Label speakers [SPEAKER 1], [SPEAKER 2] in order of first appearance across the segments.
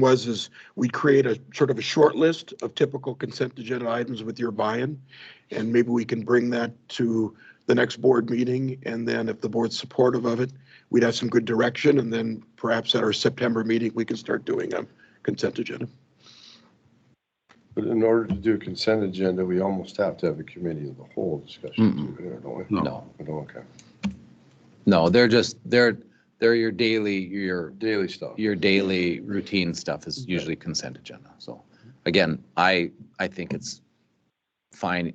[SPEAKER 1] was is we'd create a sort of a short list of typical consent agenda items with your buy-in. And maybe we can bring that to the next board meeting. And then if the board's supportive of it, we'd have some good direction. And then perhaps at our September meeting, we can start doing a consent agenda.
[SPEAKER 2] But in order to do a consent agenda, we almost have to have a committee of the whole discussion too, here, don't we?
[SPEAKER 3] No,
[SPEAKER 2] We don't, Okay,
[SPEAKER 3] no, they're just, they're, they're your daily, your,
[SPEAKER 2] daily stuff.
[SPEAKER 3] your daily routine stuff is usually consent agenda. So again, I, I think it's fine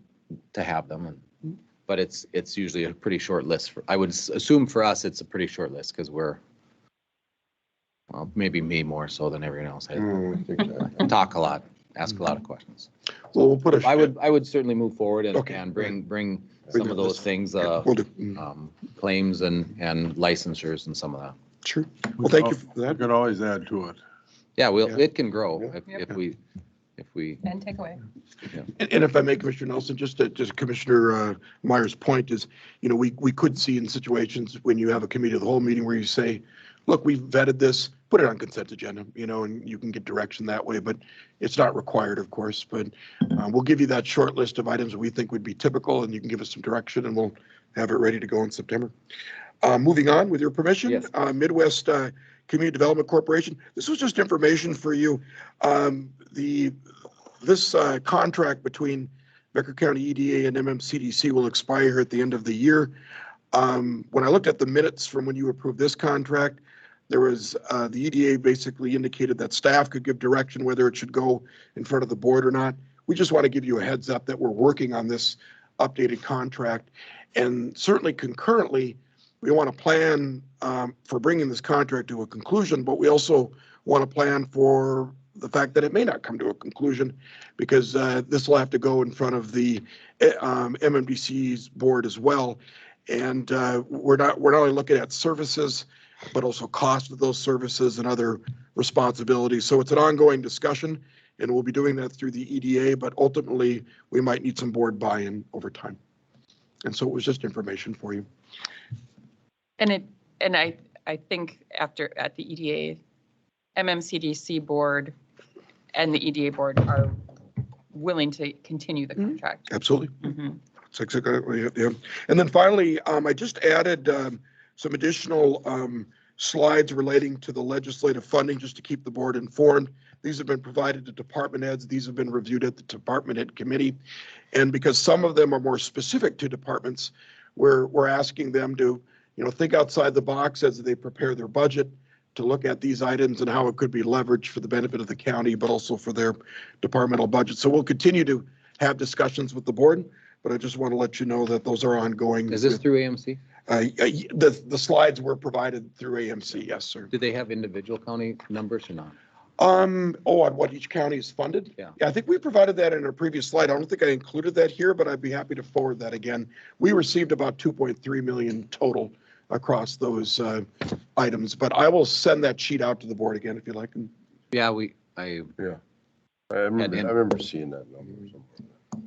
[SPEAKER 3] to have them. and- But it's, it's usually a pretty short list. for- I would s- assume for us, it's a pretty short list because we're, well, maybe me more so than everyone else. I
[SPEAKER 2] Hmm, I think
[SPEAKER 1] Mm.
[SPEAKER 2] that-
[SPEAKER 3] talk a lot, ask a lot
[SPEAKER 1] Mm-hmm.
[SPEAKER 3] of questions.
[SPEAKER 1] Well, we'll put a.
[SPEAKER 3] I would, I would certainly move forward and,
[SPEAKER 1] Okay.
[SPEAKER 3] and bring, bring
[SPEAKER 1] Bring
[SPEAKER 3] some of
[SPEAKER 1] the
[SPEAKER 3] those
[SPEAKER 1] list.
[SPEAKER 3] things, uh,
[SPEAKER 1] We'll do. Mm,
[SPEAKER 3] um, claims and, and licensures and some of that.
[SPEAKER 1] Sure. Well, thank you for
[SPEAKER 4] We
[SPEAKER 1] that.
[SPEAKER 4] could always add to it.
[SPEAKER 3] Yeah,
[SPEAKER 1] Yeah.
[SPEAKER 3] well, it can grow
[SPEAKER 2] Yeah.
[SPEAKER 3] if,
[SPEAKER 5] Yep.
[SPEAKER 3] if we, if we,
[SPEAKER 5] And take away.
[SPEAKER 1] And and if I may, Commissioner Nelson, just to, just Commissioner uh, Meyer's point is, you know, we, we could see in situations when you have a committee of the whole meeting where you say, look, we have vetted this, put it on consent agenda, you know, and you can get direction that way, but it's not required, of course. But uh, we'll give you that short list of items we think would be typical and you can give us some direction and we'll have it ready to go in September. Uh, Moving on, with your permission,
[SPEAKER 3] Yes.
[SPEAKER 1] uh, Midwest uh, Community Development Corporation, this was just information for you. Um, The, this uh, contract between Becker County EDA and MMCDC will expire at the end of the year. Um, When I looked at the minutes from when you approved this contract, there was, uh, the EDA basically indicated that staff could give direction whether it should go in front of the board or not. We just want to give you a heads up that we're working on this updated contract. And certainly concurrently, we want to plan um, for bringing this contract to a conclusion, but we also want to plan for the fact that it may not come to a conclusion because uh, this will have to go in front of the eh, um, MMDC's board as well. And uh, we're not, we're not only looking at services, but also cost of those services and other responsibilities. So it's an ongoing discussion and we'll be doing that through the EDA, but ultimately we might need some board buy-in over time. And so it was just information for you.
[SPEAKER 5] And it, and I, I think after, at the E EDA, MMCDC board and the EDA board are willing to continue the
[SPEAKER 1] Mhm.
[SPEAKER 5] contract.
[SPEAKER 1] Absolutely.
[SPEAKER 5] Mhm.
[SPEAKER 1] Six, exactly, yeah, yeah. And then finally, um, I just added, um, some additional, um, slides relating to the legislative funding, just to keep the board informed. These have been provided to department heads. These have been reviewed at the department head committee. And because some of them are more specific to departments, we're, we're asking them to, you know, think outside the box as they prepare their budget to look at these items and how it could be leveraged for the benefit of the county, but also for their departmental budget. So we'll continue to have discussions with the board, but I just want to let you know that those are ongoing.
[SPEAKER 3] is this through AMC?
[SPEAKER 1] Uh, y- The, the slides were provided through AMC, yes, sir.
[SPEAKER 3] Do they have individual county numbers or not?
[SPEAKER 1] Um, oh, on what each county is funded?
[SPEAKER 3] Yeah.
[SPEAKER 1] I think we provided that in a previous slide. I don't think I included that here, but I'd be happy to forward that again. We received about 2.3 million total across those uh, items, but I will send that sheet out to the board again if you like. And
[SPEAKER 3] Yeah, we, I,
[SPEAKER 2] I remember, I
[SPEAKER 3] in. Mm.
[SPEAKER 2] remember seeing that number somewhere.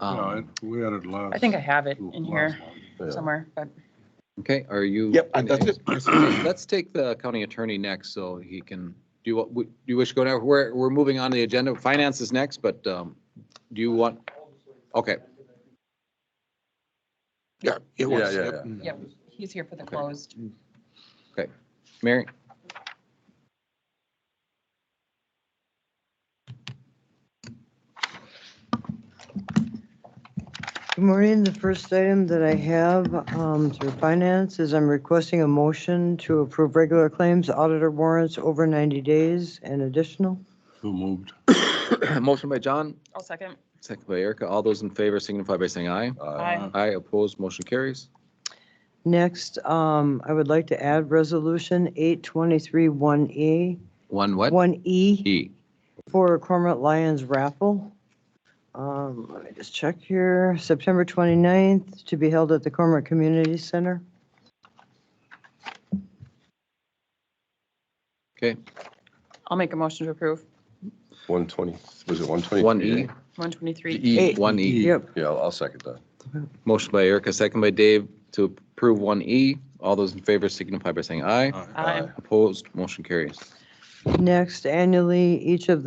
[SPEAKER 4] Yeah,
[SPEAKER 3] um,
[SPEAKER 4] it- We had it last.
[SPEAKER 5] I think I have it in here
[SPEAKER 2] Yeah.
[SPEAKER 5] somewhere, but
[SPEAKER 3] okay, are you?
[SPEAKER 1] Yep, and that's it. Yes, sir.
[SPEAKER 3] Let's take the county attorney next so he can, do you, wa- do you wish to go now? We're, we're moving on to the agenda. Finance is next, but, um, do you want? Okay,
[SPEAKER 1] Yeah, it
[SPEAKER 2] Yeah,
[SPEAKER 1] was.
[SPEAKER 2] yeah,
[SPEAKER 1] yep.
[SPEAKER 2] yeah.
[SPEAKER 5] yep, he's here for the
[SPEAKER 3] Okay.
[SPEAKER 5] closed.
[SPEAKER 3] Mary?
[SPEAKER 6] Good morning. The first item that I have um, through finance is I'm requesting a motion to approve regular claims, auditor warrants over 90 days and additional.
[SPEAKER 4] Who moved?
[SPEAKER 3] Motion by John,
[SPEAKER 5] I'll second.
[SPEAKER 3] second by Erica. All those in favor signify by saying aye.
[SPEAKER 2] Uh,
[SPEAKER 5] Aye.
[SPEAKER 3] Aye, opposed, motion carries.
[SPEAKER 6] Next, um, I would like to add Resolution 823-1E,
[SPEAKER 3] One what?
[SPEAKER 6] 1E
[SPEAKER 3] E.
[SPEAKER 6] E. for Cormorant Lions raffle. Um, Let me just check here. September 29th to be held at the Cormorant Community Center.
[SPEAKER 3] Okay,
[SPEAKER 5] I'll make a motion to approve.
[SPEAKER 2] 120, was it 120?
[SPEAKER 3] one E.
[SPEAKER 5] 123.
[SPEAKER 3] E,
[SPEAKER 6] Eight.
[SPEAKER 3] one E.
[SPEAKER 6] Yep.
[SPEAKER 2] Yeah, I'll I'll second that.
[SPEAKER 3] Motion by Erica, second by Dave to approve one E. All those in favor signify by saying aye.
[SPEAKER 5] Aye.
[SPEAKER 3] Opposed, motion carries.
[SPEAKER 6] Next, annually, each of the